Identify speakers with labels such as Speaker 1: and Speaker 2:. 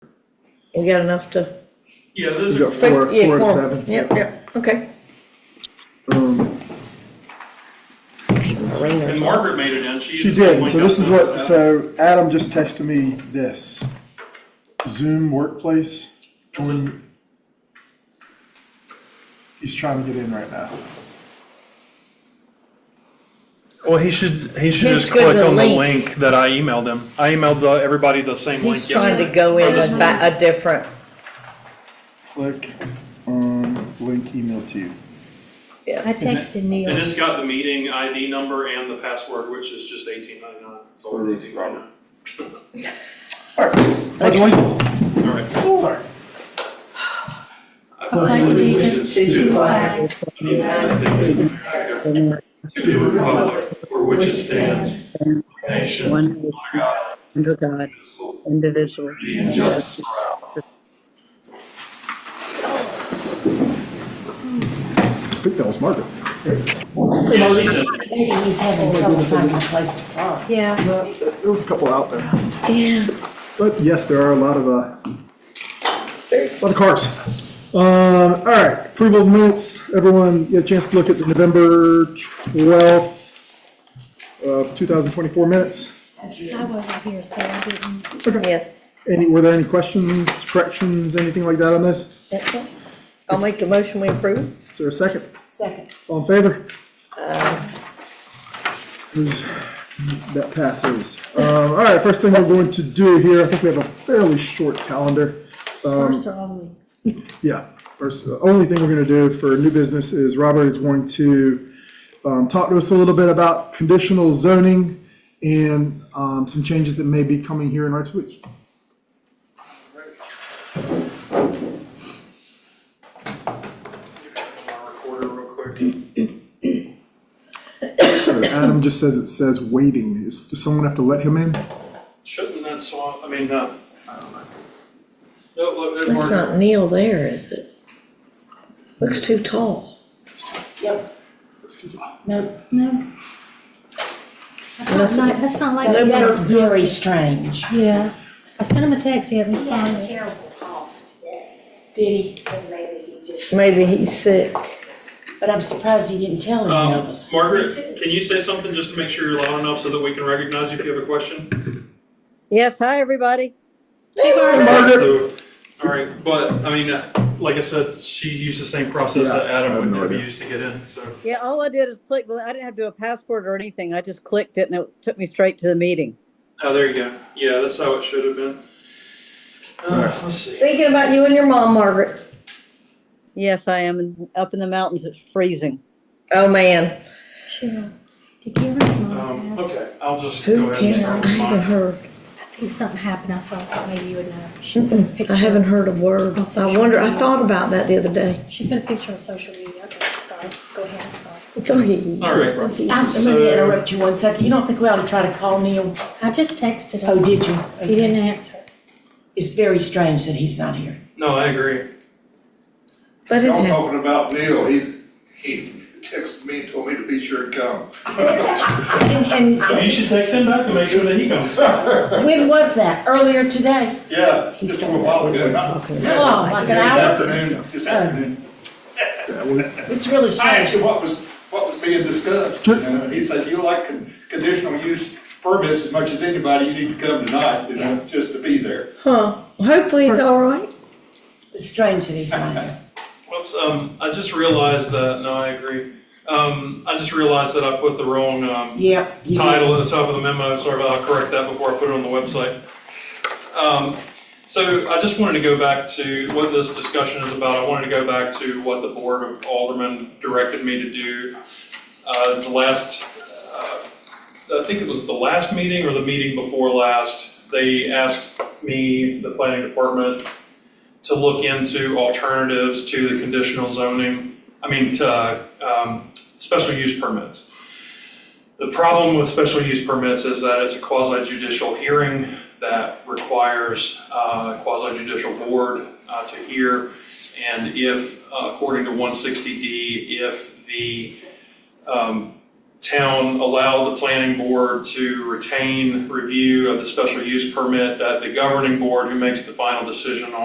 Speaker 1: You got enough to?
Speaker 2: Yeah, those
Speaker 3: You
Speaker 2: are,
Speaker 3: got four,
Speaker 1: Yeah,
Speaker 3: four to
Speaker 1: quorum.
Speaker 3: seven.
Speaker 1: Yep, yep, okay.
Speaker 3: Um,
Speaker 2: and Margaret made it in, she.
Speaker 3: She
Speaker 2: just
Speaker 3: did,
Speaker 2: went
Speaker 3: so
Speaker 2: down
Speaker 3: this is
Speaker 2: to
Speaker 3: what,
Speaker 2: that.
Speaker 3: so Adam just texted me this. Zoom workplace, join. He's trying to get in right now.
Speaker 2: Well, he should, he should
Speaker 1: He's
Speaker 2: just
Speaker 1: good with
Speaker 2: click
Speaker 1: a
Speaker 2: on the
Speaker 1: link.
Speaker 2: link that I emailed him. I emailed the, everybody the same link.
Speaker 1: He's trying to
Speaker 2: yesterday.
Speaker 1: go in a, ba- a different,
Speaker 3: Click on link email to you.
Speaker 4: I texted
Speaker 2: And
Speaker 4: Neil.
Speaker 2: this got the meeting ID number and the password, which is just eighteen ninety-nine. It's all we're doing right now.
Speaker 3: Click link.
Speaker 2: All right.
Speaker 3: Sorry.
Speaker 2: I
Speaker 4: Pledge allegiance to the flag
Speaker 2: believe in the United States of America, To the republic for which it stands, one nation,
Speaker 5: One
Speaker 2: under God,
Speaker 5: under God,
Speaker 2: indivisible,
Speaker 5: indivisible.
Speaker 2: with liberty and justice for all.
Speaker 3: I think that was Margaret.
Speaker 2: Yeah, she said,
Speaker 6: He's having trouble finding a place to park.
Speaker 4: Yeah,
Speaker 3: No, Uh, There was a couple out there.
Speaker 4: yeah.
Speaker 3: But yes, there are a lot of, uh, a lot of cars. Um, all right, approval of minutes, everyone, you had a chance to look at the November twelfth of two thousand twenty-four minutes?
Speaker 4: I wasn't here, so I didn't.
Speaker 1: yes.
Speaker 3: Any, were there any questions, corrections, anything like that on this?
Speaker 1: That's it. I'll make the motion we approve.
Speaker 3: Is there a second?
Speaker 6: Second.
Speaker 3: All in favor? Who's- That passes. Um, all right, first thing we're going to do here, I think we have a fairly short calendar. Um,
Speaker 4: First or only.
Speaker 3: Yeah, first, the only thing we're gonna do for new business is Robert is going to, um, talk to us a little bit about conditional zoning and, um, some changes that may be coming here in Wrightsville.
Speaker 2: "I'm on recorder real quick."
Speaker 3: So Adam just says it says waiting. Is, does someone have to let him in?
Speaker 2: Shouldn't that swamp, I mean, uh, I don't know. No, look, there's
Speaker 1: That's
Speaker 2: Margaret.
Speaker 1: not Neil there, is it? Looks too tall.
Speaker 6: Yep. No,
Speaker 4: No. That's not
Speaker 1: Nothing.
Speaker 4: like, that's not like.
Speaker 1: No,
Speaker 6: that's very strange.
Speaker 4: Yeah. I sent him a text, he hasn't
Speaker 7: He had a
Speaker 4: responded.
Speaker 7: terrible cough today,
Speaker 6: Did he?
Speaker 7: and maybe he just.
Speaker 1: Maybe he's sick.
Speaker 6: But I'm surprised he didn't tell any of
Speaker 2: Um,
Speaker 6: us.
Speaker 2: Margaret, can you say something just to make sure you're loud enough so that we can recognize you if you have a question?
Speaker 5: Yes, hi, everybody.
Speaker 6: Hey,
Speaker 2: So, all right, but, I mean, uh, like I said, she used the same process that
Speaker 3: Yeah, I have
Speaker 2: Adam
Speaker 3: no
Speaker 2: would have
Speaker 3: idea.
Speaker 2: used to get in, so.
Speaker 5: Yeah, all I did is click, well, I didn't have to do a password or anything. I just clicked it and it took me straight to the meeting.
Speaker 2: Oh, there you go. Yeah, that's how it should have been. Uh, let's see.
Speaker 1: Thinking about you and your mom, Margaret.
Speaker 5: Yes, I am in- up in the mountains. It's freezing.
Speaker 1: Oh, man.
Speaker 4: Sure. Did you ever
Speaker 2: Um,
Speaker 4: smell
Speaker 2: okay, I'll just go
Speaker 1: Who
Speaker 2: ahead and
Speaker 1: cares?
Speaker 2: start
Speaker 1: I
Speaker 2: with
Speaker 1: haven't
Speaker 2: mine.
Speaker 1: heard.
Speaker 4: I think something happened, that's why I thought maybe you would know. She put a
Speaker 1: I haven't
Speaker 4: picture,
Speaker 1: heard a word.
Speaker 4: On social
Speaker 1: I wonder, I
Speaker 4: media.
Speaker 1: thought about that the other day.
Speaker 4: she put a picture on social media, okay, sorry, go ahead, I'm sorry.
Speaker 1: All right.
Speaker 2: right.
Speaker 6: I'm
Speaker 2: So-
Speaker 6: going to interrupt you one second. You don't think we ought to try to call Neil?
Speaker 4: I just texted
Speaker 6: Oh,
Speaker 4: him,
Speaker 6: did you?
Speaker 4: he didn't answer.
Speaker 6: It's very strange that he's not here.
Speaker 2: No, I agree.
Speaker 1: But it
Speaker 8: Y'all
Speaker 1: happened.
Speaker 8: talking about Neil, he, he texted me, and told me to be sure to come.
Speaker 6: And,
Speaker 2: You
Speaker 6: and
Speaker 2: should text him back to make sure that he comes.
Speaker 6: when was that? Earlier today?
Speaker 8: Yeah, just a little while ago.
Speaker 6: How long? Like an hour?
Speaker 8: afternoon, this afternoon.
Speaker 6: It's really
Speaker 8: I asked
Speaker 6: strange.
Speaker 8: him what was, what was being discussed, you know, and uh, he says, you like con- conditional use permits as much as anybody, you need to come tonight, you know, just to be there.
Speaker 1: Huh. Hopefully he's all right.
Speaker 6: It's strange that he's not here.
Speaker 2: Whoops, um, I just realized that, no, I agree. Um, I just realized that I put the wrong, um,
Speaker 6: Yep. you did.
Speaker 2: title at the top of the memo, sorry, I'll correct that before I put it on the website. Um, So I just wanted to go back to what this discussion is about, I wanted to go back to what the Board of Aldermen directed me to do. Uh, The last, uh, I think it was the last meeting or the meeting before last, they asked me, the planning department, to look into alternatives to the conditional zoning, I mean, to um, special use permits. The problem with special use permits is that it's a quasi judicial hearing that requires uh, a quasi judicial board uh, to hear. And if, uh, according to 160D, if the um, town allowed the planning board to retain review of the special use permit, that the governing board who makes the final decision on